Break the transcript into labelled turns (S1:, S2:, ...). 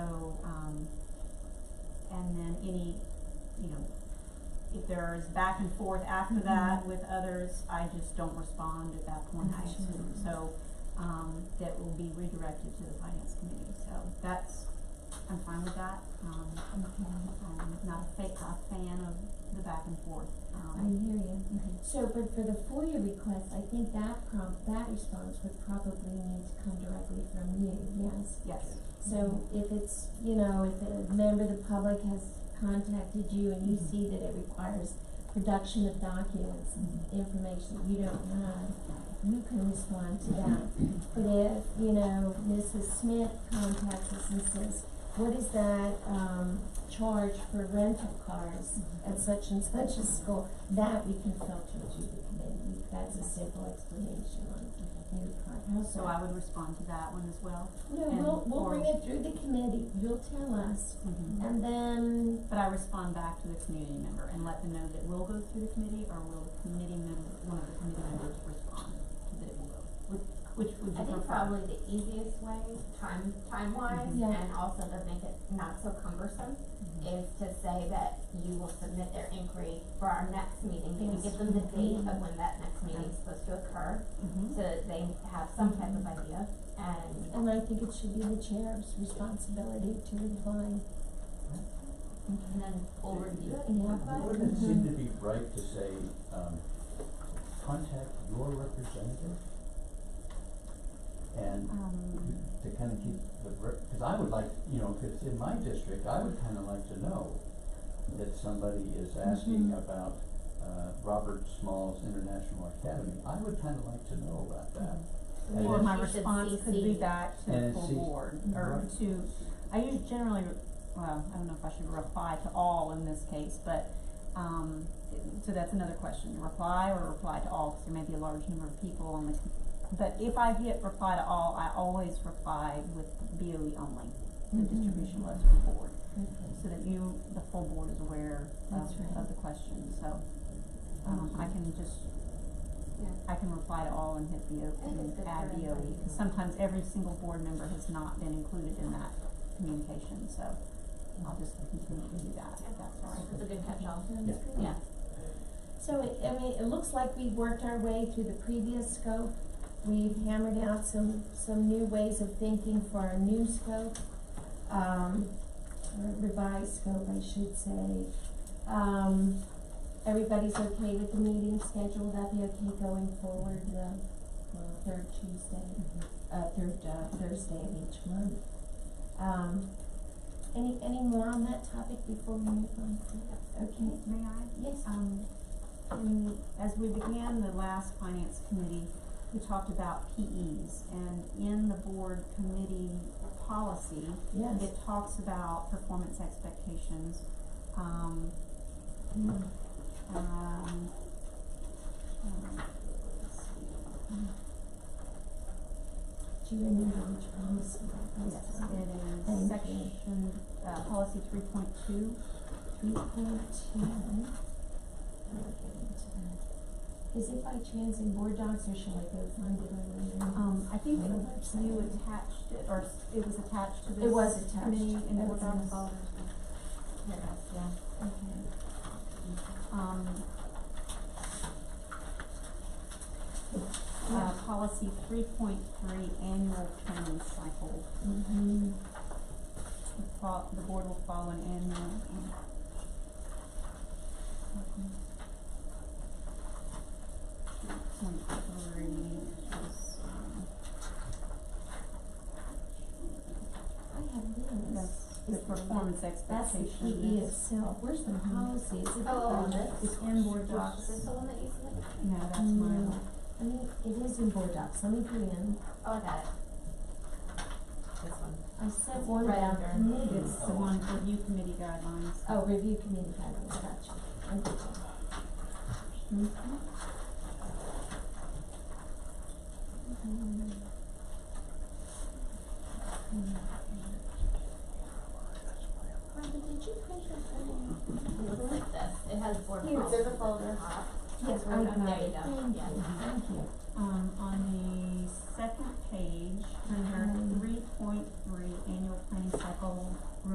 S1: um, any, you know, if there's back and forth after that with others, I just don't respond at that point, I
S2: Mhm.
S1: assume. So, um, that will be redirected to the finance committee, so that's, I'm fine with that. Um,
S2: Uh,
S1: I'm not a fa- a fan of the back and forth,
S2: I
S1: um.
S2: hear you. So, but for the FOIA request, I think that prompt, that response would probably need to come directly from you, yes?
S1: Yes,
S2: So if it's, you know, if a member of the public has contacted you and you
S3: Mhm.
S2: see that it requires production of documents,
S3: Mhm.
S2: information that you don't have, you can respond to that. But if, you know, Mrs. Smith contacts us and says, what is that, um, charge for rental cars at such and such a school? That we can filter to the committee, that's a simple explanation on your part, how's
S1: so
S2: that?
S1: I would respond to that one as well.
S2: No,
S1: and-
S2: we'll, we'll
S1: or-
S2: bring it through the committee, you'll tell us, and then,
S1: But I respond back to the community member and let them know that we'll go through the committee or will the committee member, one of the committee members respond to that it will go? Which, which would
S4: I
S1: you
S4: think
S1: prefer?
S4: probably the easiest way, time, time wise,
S1: Mhm.
S2: Yeah.
S4: and also to make it not so cumbersome, is to say that you will submit their inquiry for our next meeting. Can you
S2: Yes.
S4: give them the date of
S1: Mm-hmm.
S2: Mhm.
S4: when that next meeting is supposed to occur,
S1: Mhm.
S4: so that they have some type
S1: Mm-hmm.
S4: of idea? And,
S2: and I think it should be the chair's responsibility to reply.
S1: Mm-hmm.
S4: and then we'll review it and talk about it.
S3: Wouldn't it seem to be right to say, um, contact your representative? And
S1: Um,
S3: to kind of keep the, because I would like, you know, if it's in my district, I would kind of like to know that somebody is asking
S2: Mhm.
S3: about, uh, Robert Small's International Academy. I would kind of like to know about that. And
S1: Or
S3: then-
S1: my
S4: You should
S1: response could be
S4: CC.
S1: back to the
S3: And
S1: full
S3: CC
S1: board, or
S3: Right.
S1: to, I usually generally, well, I don't know if I should reply to all in this case, but, um, so that's another question, reply or reply to all, because there may be a large number of people on the, but if I hit reply to all, I always reply with BOE only, the
S2: Mm-hmm.
S1: distribution list for board, so that you, the full board is aware of,
S2: That's right.
S1: of the question, so, um, I can just
S4: Yeah.
S1: I can reply to all and hit the, O-
S4: I think it's
S1: and
S4: good
S1: add
S4: for
S1: the
S4: everybody.
S1: OE, because sometimes every single board member has not been included in that communication, so I'll just continue to do that, if that's all right.
S4: It's a good catch-all.
S3: Yeah.
S4: Yeah.
S2: So it, I mean, it looks like we've worked our way through the previous scope, we've hammered out some, some new ways of thinking for our new scope, um, or revised scope, I should say. Um, everybody's okay with the meeting schedule, Will that be okay going forward, the, well, third Tuesday? uh, third, uh, Thursday of each month. Um, any, any more on that topic before we move on? Okay,
S1: May I?
S2: yes,
S1: Um, in, as we began the last finance committee, we talked about PEs, and in the board committee policy,
S2: yes.
S1: it talks about performance expectations, um,
S2: Mm.
S1: Um, um, let's see.
S2: Do you remember which policy that was?
S1: Yes, it
S2: Thank you.
S1: is section, uh, policy three point two.
S2: Three point two. I'll get into that. Is it by chance in board docs or shall I go find it on my own?
S1: Um, I think
S2: On the website?
S1: you attached it, or s- it was attached to this.
S2: It was attached.
S1: Committee in
S2: It
S1: board
S2: was.
S1: docs.
S4: Yeah.
S2: Okay.
S1: Um. Uh, policy three point three, annual training cycle.
S2: Mm-hmm.
S1: The fol- the board will follow an annual. Point three, is, um,
S2: I have this.
S1: that's the
S2: Is the-
S1: performance Mm-hmm.
S2: That's the
S1: expectation.
S2: PE itself. Where's the policy? Is it?
S4: Oh,
S2: um,
S4: this,
S1: It's in board
S4: is this
S1: docs,
S4: the one that you submitted?
S1: no, that's mine,
S2: No. Mm. I mean, it is in board docs. Let me put it in.
S4: Oh, I got it. This one.
S2: I sent one
S4: Right
S2: down
S4: under.
S2: committees.
S1: it's the one for review committee guidelines.
S2: Mm. Oh, review committee guidelines, gotcha. Okay.
S1: Mm-hmm.
S2: Rhonda, did you print your phone?
S4: It looks like this. It has Uh-huh. board
S2: Here,
S4: policy.
S2: there's a
S4: folder.
S2: Yes, I
S4: There you
S2: got
S4: go.
S2: it. Thank
S4: Yeah.
S2: you, thank you.
S1: Um, on the second page, under
S2: Mhm.
S1: three point three, annual planning cycle,